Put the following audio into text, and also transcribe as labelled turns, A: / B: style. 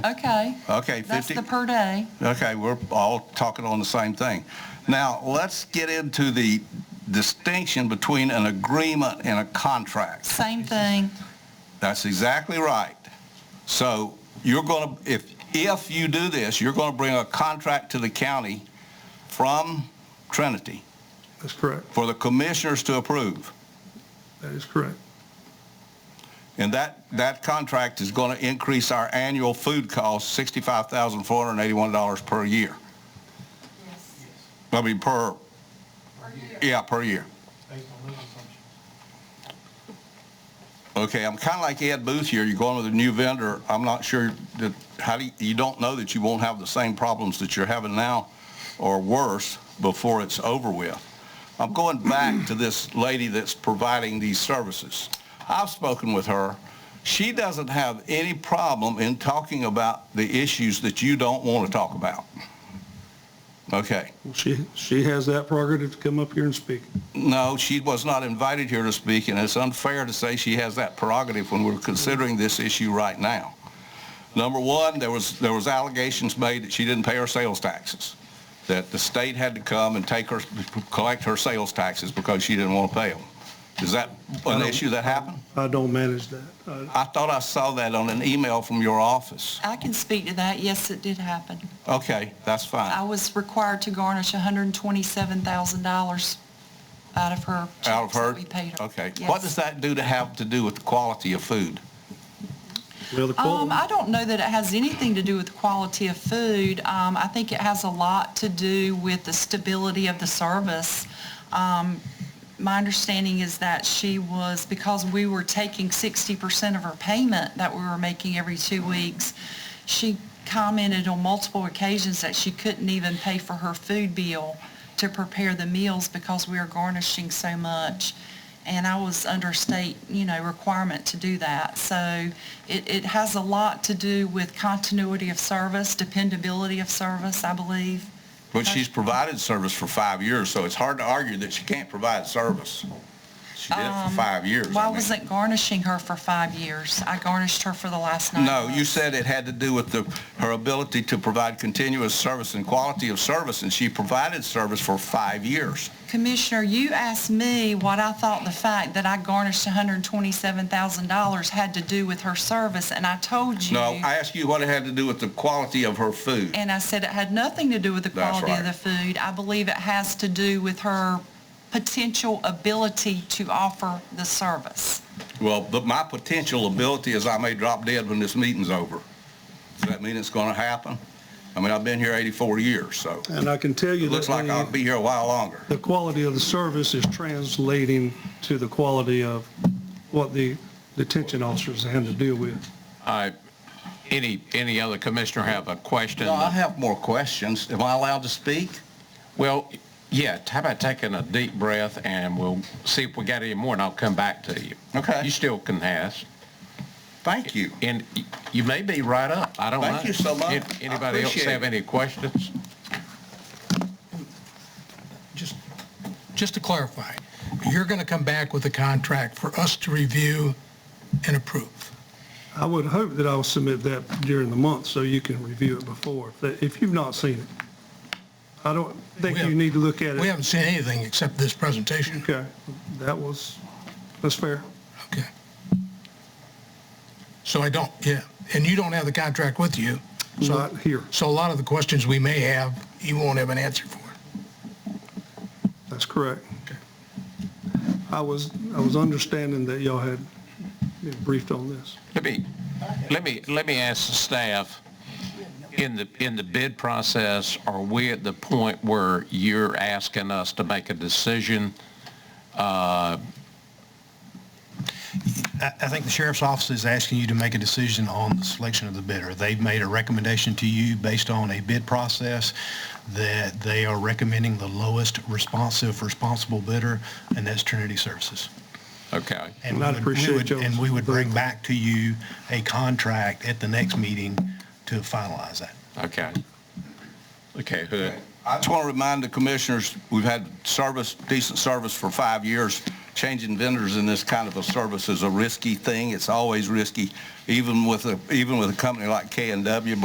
A: Okay,
B: Okay,
A: that's
B: 50,
A: the per day.
B: okay, we're all talking on the same thing. Now, let's get into the distinction between an agreement and a contract.
A: Same thing.
B: That's exactly right. So you're going to, if, if you do this, you're going to bring a contract to the county from Trinity
C: That's correct.
B: for the commissioners to approve.
C: That is correct.
B: And that, that contract is going to increase our annual food cost $65,481 per year. I mean, per, yeah, per year.
D: based on those assumptions.
B: Okay, I'm kind of like Ed Booth here. You're going with a new vendor. I'm not sure that, how do you, you don't know that you won't have the same problems that you're having now or worse before it's over with. I'm going back to this lady that's providing these services. I've spoken with her. She doesn't have any problem in talking about the issues that you don't want to talk about. Okay.
C: She, she has that prerogative to come up here and speak.
B: No, she was not invited here to speak, and it's unfair to say she has that prerogative when we're considering this issue right now. Number one, there was, there was allegations made that she didn't pay her sales taxes, that the state had to come and take her, collect her sales taxes because she didn't want to pay them. Is that an issue that happened?
C: I don't manage that. I-
B: I thought I saw that on an email from your office.
A: I can speak to that. Yes, it did happen.
B: Okay, that's
A: I
B: fine.
A: was required to garnish $127,000 out of her
B: Out of
A: checks
B: her,
A: that we paid her.
B: okay. What does
A: Yes.
B: that do to have to do with the quality of food?
C: Well, the qual-
A: Um, I don't know that it has anything to do with the quality of food. Um, I think it has a lot to do with the stability of the service. Um, my understanding is that she was, because we were taking 60% of her payment that we were making every two weeks, she commented on multiple occasions that she couldn't even pay for her food bill to prepare the meals because we were garnishing so much. And I was under state, you know, requirement to do that. So it, it has a lot to do with continuity of service, dependability of service, I believe.
B: But she's provided service for five years, so it's hard to argue that she can't provide service. She did it for five years. I
A: Um, Why
B: mean.
A: wasn't garnishing her for five years? I garnished her for the last nine
B: No, you
A: months.
B: said it had to do with the, her ability to provide continuous service and quality of service, and she provided service for five years.
A: Commissioner, you asked me what I thought the fact that I garnished $127,000 had to do with her service, and I told you.
B: No, I asked you what it had to do with the quality of her food.
A: And I said it had nothing to do with the
B: That's
A: quality of
B: right.
A: the food. I believe it has to do with her potential ability to offer the service.
B: Well, but my potential ability is I may drop dead when this meeting's over. Does that mean it's going to happen? I mean, I've been here 84 years, so
C: And I can tell you
B: it
C: that
B: looks like I'll
C: the,
B: be here a while longer.
C: the quality of the service is translating to the quality of what the detention officers have to deal with.
E: Uh, Any, any other commissioner have a question?
B: No, I have more questions. Am I allowed to speak?
E: Well, yeah, how about taking a deep breath and we'll see if we got any more and I'll come back to you.
B: Okay.
E: You still can ask.
B: Thank you.
E: And y- you may be right up. I don't know.
B: Thank you so much.
E: An-
B: I
E: Anybody else
B: appreciate
E: have
B: it.
E: any questions?
F: Just, just to clarify, you're going to come back with a contract for us to review and approve.
C: I would hope that I'll submit that during the month so you can review it before, that- if you've not seen it. I don't think you need to look at it.
F: We haven't seen anything except this presentation.
C: Okay, that was, that's fair.
F: Okay. So I don't, yeah, and you don't have the contract with you.
A: Mm-hmm.
F: so-
C: Not here.
F: So a lot of the questions we may have, you won't have an answer for.
C: That's correct.
F: Okay.
C: I was, I was understanding that y'all had been briefed on this.
E: Let me, let me, let me ask the staff, in the, in the bid process, are we at the point where you're asking us to make a decision?
G: I I think the sheriff's office is asking you to make a decision on the selection of the bidder. They've made a recommendation to you based on a bid process that they are recommending the lowest responsive responsible bidder, and that's Trinity Services.
E: Okay.
G: And
C: Well, I
G: we would- we
C: appreciate
G: would-
C: y'all's
G: And we would bring
C: vote.
G: back to you a contract at the next meeting to finalize that.
E: Okay. Okay, Hood.
B: I just want to remind the commissioners, we've had service, decent service for five years. changing vendors in this kind of a service is a risky thing. It's always risky, even with a, even with a company like K and W,